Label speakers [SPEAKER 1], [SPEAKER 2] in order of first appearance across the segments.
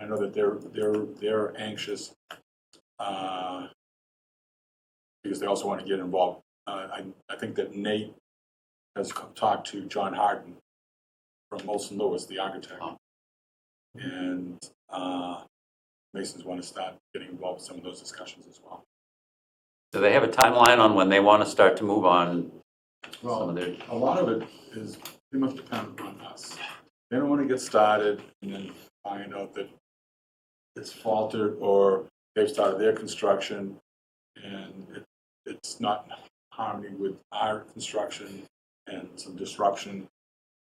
[SPEAKER 1] I know that they're, they're, they're anxious, uh, because they also want to get involved. Uh, I, I think that Nate has co- talked to John Harden from Molson Lewis, the architect.
[SPEAKER 2] Oh.
[SPEAKER 1] And, uh, Masons want to start getting involved in some of those discussions as well.
[SPEAKER 2] Do they have a timeline on when they want to start to move on some of
[SPEAKER 1] Well,
[SPEAKER 2] their,
[SPEAKER 1] a lot of it is pretty much dependent on us. They don't want to get started and then find out that it's faltered or they've started their construction and it, it's not in harmony with our construction and some disruption.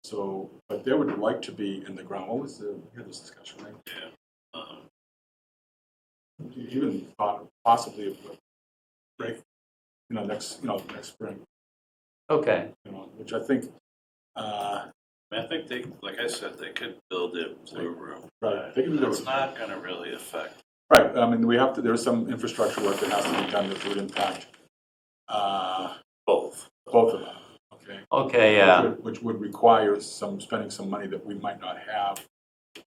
[SPEAKER 1] So, but they would like to be in the ground. What was the, we had this discussion, right? Yeah. Even thought possibly of a break, you know, next, you know, next spring
[SPEAKER 2] okay,
[SPEAKER 1] you know, which I think, uh,
[SPEAKER 3] I think they, like I said, they could build a blue room.
[SPEAKER 1] right, I think it
[SPEAKER 3] It's
[SPEAKER 1] was-
[SPEAKER 3] not gonna really affect.
[SPEAKER 1] right, I mean, we have to, there's some infrastructure work that has to be done that would impact, uh,
[SPEAKER 3] Both.
[SPEAKER 1] both of them, okay?
[SPEAKER 2] okay, yeah,
[SPEAKER 1] Which would- Which would require some, spending some money that we might not have.
[SPEAKER 4] They-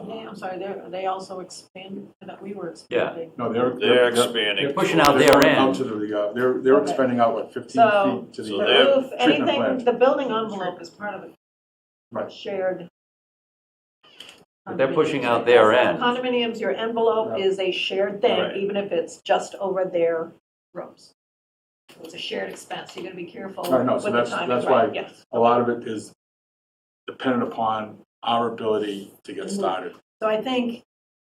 [SPEAKER 1] Uh,
[SPEAKER 4] I'm sorry, they're, they also expand, that we were
[SPEAKER 2] Yeah.
[SPEAKER 4] expanding.
[SPEAKER 1] No, they're.
[SPEAKER 3] They're expanding.
[SPEAKER 2] They're pushing out
[SPEAKER 1] they're
[SPEAKER 2] their
[SPEAKER 1] going
[SPEAKER 2] end.
[SPEAKER 1] Out to the, uh, they're, they're
[SPEAKER 4] Okay.
[SPEAKER 1] expanding out, what, fifteen
[SPEAKER 4] So-
[SPEAKER 1] feet to
[SPEAKER 3] So
[SPEAKER 1] the.
[SPEAKER 4] The
[SPEAKER 3] they're-
[SPEAKER 1] uh,
[SPEAKER 4] roof,
[SPEAKER 1] treatment
[SPEAKER 4] anything,
[SPEAKER 1] plant.
[SPEAKER 4] the building envelope is part of it.
[SPEAKER 1] Right.
[SPEAKER 4] Shared.
[SPEAKER 2] But they're pushing out
[SPEAKER 4] condominiums.
[SPEAKER 2] their end.
[SPEAKER 4] Condominiums, your envelope
[SPEAKER 1] Yeah.
[SPEAKER 4] is a shared thing,
[SPEAKER 3] Right.
[SPEAKER 4] even if it's just over their rooms. It's a shared expense, so you're gonna be careful
[SPEAKER 1] I know,
[SPEAKER 4] with
[SPEAKER 1] so
[SPEAKER 4] the
[SPEAKER 1] that's- that's
[SPEAKER 4] timing,
[SPEAKER 1] why-
[SPEAKER 4] right, yes.
[SPEAKER 1] A lot of it is dependent upon our ability to get
[SPEAKER 4] Mhm.
[SPEAKER 1] started.
[SPEAKER 4] So I think,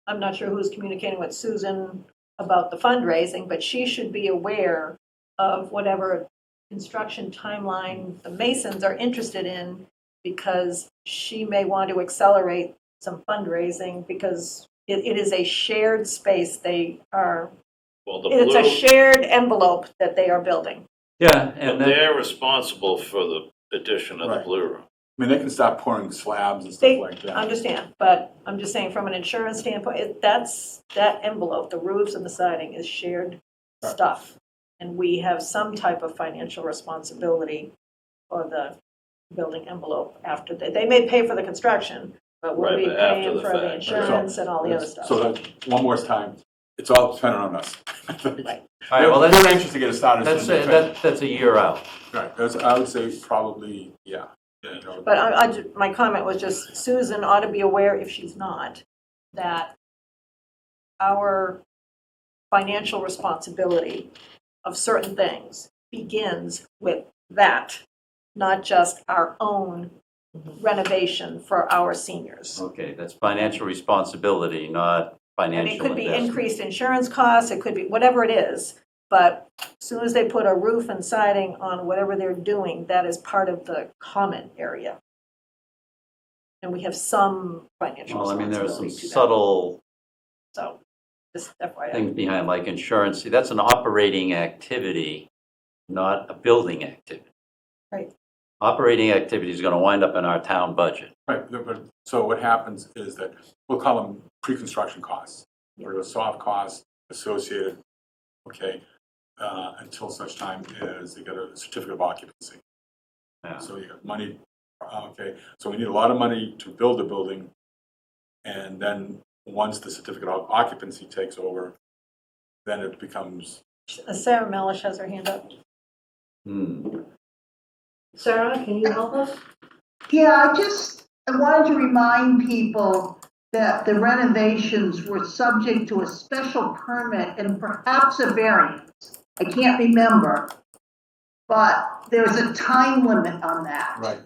[SPEAKER 4] I'm not sure who's communicating with Susan about the fundraising, but she should be aware of whatever construction timeline the Masons are interested in, because she may want to accelerate some fundraising, because it, it is a shared space they are,
[SPEAKER 3] Well, the
[SPEAKER 4] it's a
[SPEAKER 3] blue,
[SPEAKER 4] shared envelope that they are building.
[SPEAKER 2] yeah,
[SPEAKER 3] but
[SPEAKER 2] and then,
[SPEAKER 3] they're responsible for the addition of the
[SPEAKER 1] Right.
[SPEAKER 3] blue room.
[SPEAKER 1] I mean, they can start pouring slabs and
[SPEAKER 4] They-
[SPEAKER 1] stuff like that.
[SPEAKER 4] Understand, but I'm just saying, from an insurance standpoint, it- that's, that envelope, the roofs and the siding is shared stuff. And we have some type of financial responsibility for the building envelope after, they, they may pay for the construction, but we'll
[SPEAKER 3] Right,
[SPEAKER 4] be
[SPEAKER 3] but after
[SPEAKER 4] paying
[SPEAKER 3] the
[SPEAKER 4] for
[SPEAKER 3] fact,
[SPEAKER 4] the
[SPEAKER 3] right.
[SPEAKER 4] insurance and all the other
[SPEAKER 1] So
[SPEAKER 4] stuff.
[SPEAKER 1] that, one more time, it's all dependent on us.
[SPEAKER 2] all
[SPEAKER 4] Right.
[SPEAKER 2] right, well,
[SPEAKER 1] They're
[SPEAKER 2] that's,
[SPEAKER 1] they're anxious to get us started.
[SPEAKER 2] that's,
[SPEAKER 1] as soon as
[SPEAKER 2] a-
[SPEAKER 1] they finish.
[SPEAKER 2] that- that's a year out.
[SPEAKER 1] Right, that's- I would say probably, yeah. you know,
[SPEAKER 4] But I, I ju- my comment was just Susan ought to be aware, if she's not, that our financial responsibility of certain things begins with that, not just our own renovation for our seniors.
[SPEAKER 2] Okay, that's financial responsibility, not
[SPEAKER 4] And it
[SPEAKER 2] financial
[SPEAKER 4] could be
[SPEAKER 2] investment.
[SPEAKER 4] increased insurance costs, it could be whatever it is, but as soon as they put a roof and siding on whatever they're doing, that is part of the common area. And we have some financial
[SPEAKER 2] Well, I mean, there are some
[SPEAKER 4] responsibility to that.
[SPEAKER 2] subtle
[SPEAKER 4] So, just FYI.
[SPEAKER 2] things behind, like insurance, See, that's an operating activity, not a building activity.
[SPEAKER 4] Right.
[SPEAKER 2] Operating activity is gonna wind up in our town budget.
[SPEAKER 1] Right, but- but, so what happens is that, we'll call them pre-construction costs, or the soft costs associated, okay, uh, until such time as they get a certificate of occupancy.
[SPEAKER 2] Yeah.
[SPEAKER 1] So you have money, uh, okay, so we need a lot of money to build the building, and then, once the certificate of occupancy takes over, then it becomes
[SPEAKER 4] Sarah Melish has her hand up.
[SPEAKER 2] Hmm.
[SPEAKER 4] Sarah, can you help us?
[SPEAKER 5] Yeah, I just, I wanted to remind people that the renovations were subject to a special permit and perhaps a variance. I can't remember. But there's a time limit on that.
[SPEAKER 1] Right.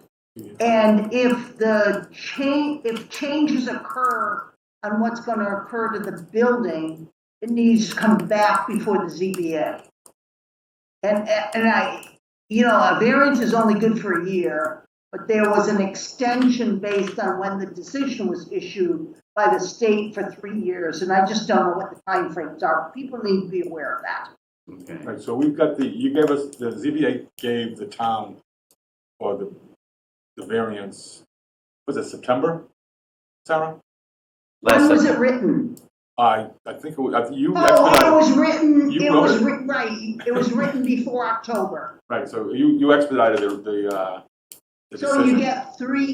[SPEAKER 5] And if the change, if changes occur on what's going to occur to the building, it needs to come back before the ZBA. And, and I, you know, a variance is only good for a year, but there was an extension based on when the decision was issued by the state for three years, and I just don't know what the timeframes are. People need to be aware of that.
[SPEAKER 2] Okay.
[SPEAKER 1] Right, so we've got the, you gave us, the ZBA gave the town, or the, the variance, was it September, Sarah?
[SPEAKER 2] Last
[SPEAKER 5] When was
[SPEAKER 2] September.
[SPEAKER 5] it written?
[SPEAKER 1] I, I think, it was- I think you, that's what
[SPEAKER 5] Oh, it
[SPEAKER 1] I-
[SPEAKER 5] was written,
[SPEAKER 1] You
[SPEAKER 5] it
[SPEAKER 1] wrote
[SPEAKER 5] was
[SPEAKER 1] it.
[SPEAKER 5] written, right, it was written before October.
[SPEAKER 1] right, so you, you expedited the, the, uh, the
[SPEAKER 5] So you
[SPEAKER 1] decision.
[SPEAKER 5] get three